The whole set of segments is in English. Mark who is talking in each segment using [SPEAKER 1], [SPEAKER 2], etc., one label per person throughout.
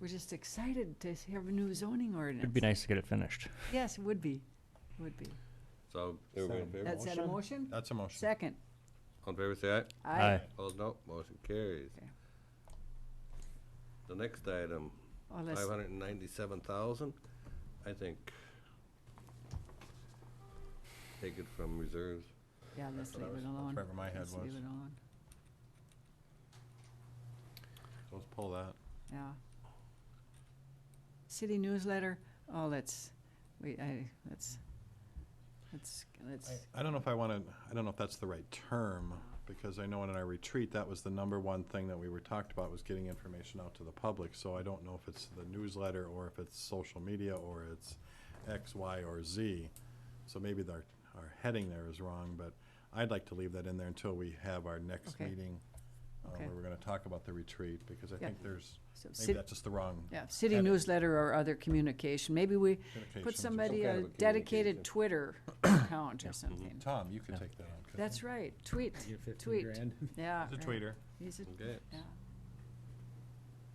[SPEAKER 1] We're just excited to have a new zoning ordinance.
[SPEAKER 2] It'd be nice to get it finished.
[SPEAKER 1] Yes, it would be, would be.
[SPEAKER 3] So,
[SPEAKER 4] Everybody in favor?
[SPEAKER 1] That's that a motion?
[SPEAKER 4] That's a motion.
[SPEAKER 1] Second.
[SPEAKER 3] on favor say aye.
[SPEAKER 1] Aye.
[SPEAKER 3] Opposed, no. Motion carries.
[SPEAKER 1] Okay.
[SPEAKER 3] The next item,
[SPEAKER 1] Oh, let's-
[SPEAKER 3] five hundred and ninety-seven thousand, I think. Take it from reserves.
[SPEAKER 1] Yeah, let's
[SPEAKER 4] That's what
[SPEAKER 1] leave
[SPEAKER 4] I was-
[SPEAKER 1] it
[SPEAKER 4] that's
[SPEAKER 1] alone.
[SPEAKER 4] wherever my head
[SPEAKER 1] Let's
[SPEAKER 4] was.
[SPEAKER 1] Leave it alone,
[SPEAKER 4] Let's pull that.
[SPEAKER 1] yeah. City newsletter, oh, let's, we, I, let's, let's, let's,
[SPEAKER 4] I don't know if I want to, I don't know if that's the right term, because I know in our retreat, that was the number one thing that we were talked about, was getting information out to the public. So I don't know if it's the newsletter, or if it's social media, or it's X, Y, or Z. So maybe our, our heading there is wrong, but I'd like to leave that in there until we have our next
[SPEAKER 1] Okay.
[SPEAKER 4] meeting, uh,
[SPEAKER 1] Okay.
[SPEAKER 4] where we're going to talk about the retreat, because I
[SPEAKER 1] Yeah.
[SPEAKER 4] think there's,
[SPEAKER 1] so,
[SPEAKER 4] maybe
[SPEAKER 1] city,
[SPEAKER 4] that's just the wrong
[SPEAKER 1] yeah, city
[SPEAKER 4] edit.
[SPEAKER 1] newsletter or other communication, maybe we
[SPEAKER 4] communications.
[SPEAKER 1] put somebody
[SPEAKER 3] kind
[SPEAKER 1] a
[SPEAKER 3] of a communication.
[SPEAKER 1] dedicated Twitter account or something.
[SPEAKER 4] Tom, you
[SPEAKER 2] Yeah.
[SPEAKER 4] could take that on. couldn't
[SPEAKER 1] That's
[SPEAKER 4] you?
[SPEAKER 1] right, tweet,
[SPEAKER 5] Get fifteen
[SPEAKER 1] Tweet.
[SPEAKER 5] grand.
[SPEAKER 1] yeah.
[SPEAKER 4] He's a
[SPEAKER 1] right.
[SPEAKER 4] tweeter.
[SPEAKER 1] He's a,
[SPEAKER 3] Okay.
[SPEAKER 1] yeah.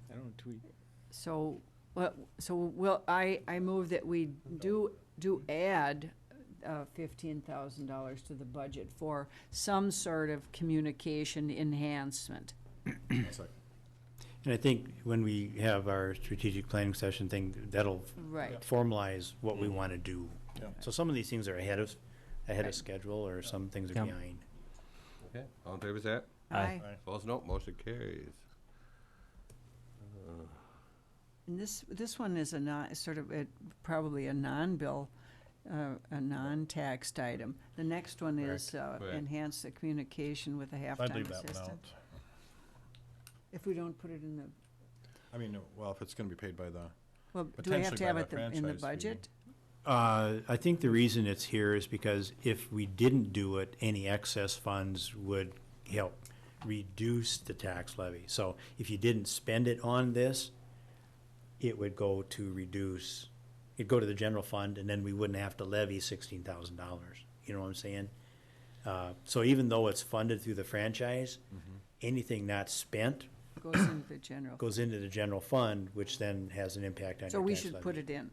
[SPEAKER 5] I don't tweet.
[SPEAKER 1] So, well, so will, I, I move that we do, do add uh, fifteen thousand dollars to the budget for some sort of communication enhancement.
[SPEAKER 4] It's like,
[SPEAKER 6] And I think when we have our strategic planning session thing, that'll
[SPEAKER 1] Right,
[SPEAKER 6] formalize what we want to do.
[SPEAKER 4] Yeah.
[SPEAKER 6] So some of these things are ahead of, ahead
[SPEAKER 1] Right.
[SPEAKER 6] of schedule, or some things
[SPEAKER 2] Yeah.
[SPEAKER 6] are behind.
[SPEAKER 3] Okay. All in favor say aye.
[SPEAKER 1] aye.
[SPEAKER 3] Opposed, no. Motion carries.
[SPEAKER 1] And this, this one is a non, sort of, it, probably a non-bill, uh, a non-taxed item. The next one is uh,
[SPEAKER 3] Correct.
[SPEAKER 1] enhance the communication with a
[SPEAKER 4] I'd leave
[SPEAKER 1] halftime
[SPEAKER 4] that one out.
[SPEAKER 1] assistant. If we don't put it in the,
[SPEAKER 4] I mean, well, if it's gonna be paid by the,
[SPEAKER 1] well, do I have
[SPEAKER 4] Potentially
[SPEAKER 1] to
[SPEAKER 4] by
[SPEAKER 1] have
[SPEAKER 4] the
[SPEAKER 1] it the- in the
[SPEAKER 4] franchise fee.
[SPEAKER 1] budget?
[SPEAKER 6] Uh, I think the reason it's here is because if we didn't do it, any excess funds would help reduce the tax levy. So if you didn't spend it on this, it would go to reduce, it'd go to the general fund, and then we wouldn't have to levy sixteen thousand dollars. You know what I'm saying? Uh, so even though it's funded through the franchise, anything not spent
[SPEAKER 1] Goes in the general.
[SPEAKER 6] goes into the general fund, which then has an impact on your tax
[SPEAKER 1] So
[SPEAKER 6] levy.
[SPEAKER 1] we should put it in.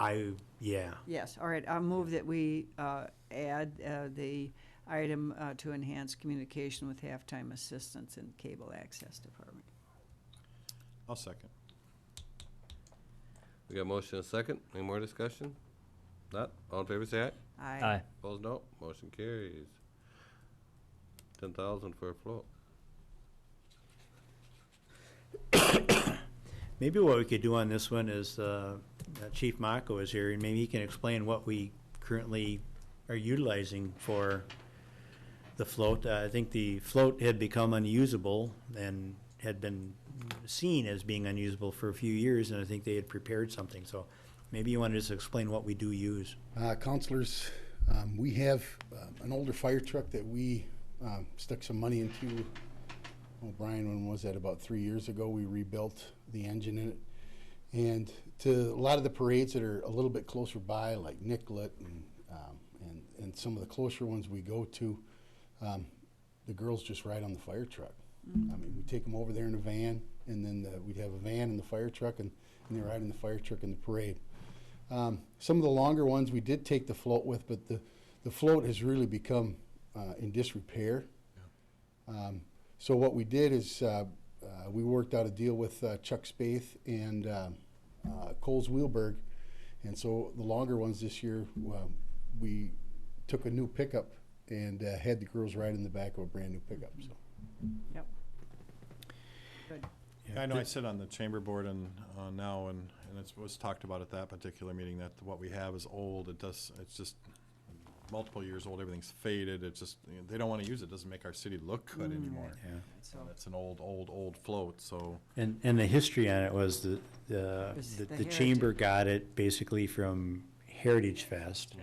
[SPEAKER 6] I, yeah.
[SPEAKER 1] Yes, all right, I'll move that we uh, add uh, the item uh, to enhance communication with halftime assistants in cable access department.
[SPEAKER 4] I'll second.
[SPEAKER 3] We got motion and second. Any more discussion? Not? All in favor say aye.
[SPEAKER 2] Aye.
[SPEAKER 3] Opposed, no. Motion carries. Ten thousand for a float.
[SPEAKER 6] Maybe what we could do on this one is, uh, uh, Chief Mako is here, and maybe he can explain what we currently are utilizing for the float. Uh, I think the float had become unusable and had been seen as being unusable for a few years, and I think they had prepared something, so maybe you want to just explain what we do use.
[SPEAKER 7] Uh, counselors, um, we have uh, an older fire truck that we um, stuck some money into. Oh, Brian, when was that? About three years ago, we rebuilt the engine in it. And to a lot of the parades that are a little bit closer by, like Nicollet and, um, and, and some of the closer ones we go to, um, the girls just ride on the fire truck. I mean, we take them over there in a van, and then the, we'd have a van and the fire truck, and, and they ride in the fire truck in the parade. Um, some of the longer ones we did take the float with, but the, the float has really become uh, in disrepair. Um, so what we did is uh, uh, we worked out a deal with uh, Chuck Spath and um uh, Coles Wheelberg, and so the longer ones this year um, we took a new pickup and uh, had the girls ride in the back of a brand new pickup. So.
[SPEAKER 1] Yep.
[SPEAKER 4] I know I sit on the chamber board and, uh, now, and, and it was talked about at that particular meeting, that what we have is old, it does, it's just multiple years old, everything's faded, it's just, you know, they don't wanna use it, doesn't make our city look good anymore.
[SPEAKER 6] Yeah.
[SPEAKER 1] So
[SPEAKER 4] And It's an old, old, old float, so,
[SPEAKER 6] And, and the history on it was the, the,
[SPEAKER 1] Was
[SPEAKER 6] the-
[SPEAKER 1] the
[SPEAKER 6] the chamber got it basically from Heritage Fest.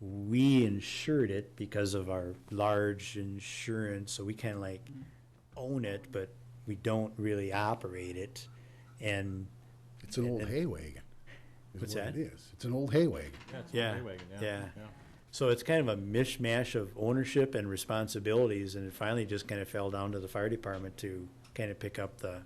[SPEAKER 6] We insured it because of our large insurance, so we kind of like own it, but we don't really operate it. And,
[SPEAKER 7] It's an old hay wagon. is
[SPEAKER 6] What's
[SPEAKER 7] what
[SPEAKER 6] that?
[SPEAKER 7] It is. It's an old hay wagon.
[SPEAKER 6] yeah,
[SPEAKER 4] hay wagon, yeah,
[SPEAKER 6] yeah.
[SPEAKER 4] yeah.
[SPEAKER 6] So it's kind of a mishmash of ownership and responsibilities, and it finally just kind of fell down to the fire department to kind of pick up the,